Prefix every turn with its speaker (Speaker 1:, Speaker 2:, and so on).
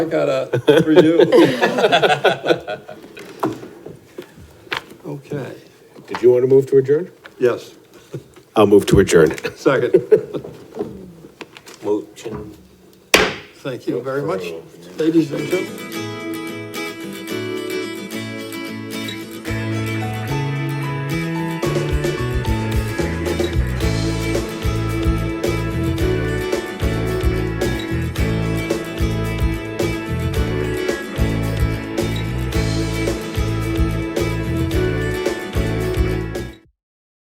Speaker 1: I got a, for you. Okay,
Speaker 2: Did you want to move to adjourn?
Speaker 1: yes,
Speaker 2: I'll move to adjourn.
Speaker 1: second.
Speaker 3: Motion
Speaker 1: Thank you very much, ladies and gentlemen.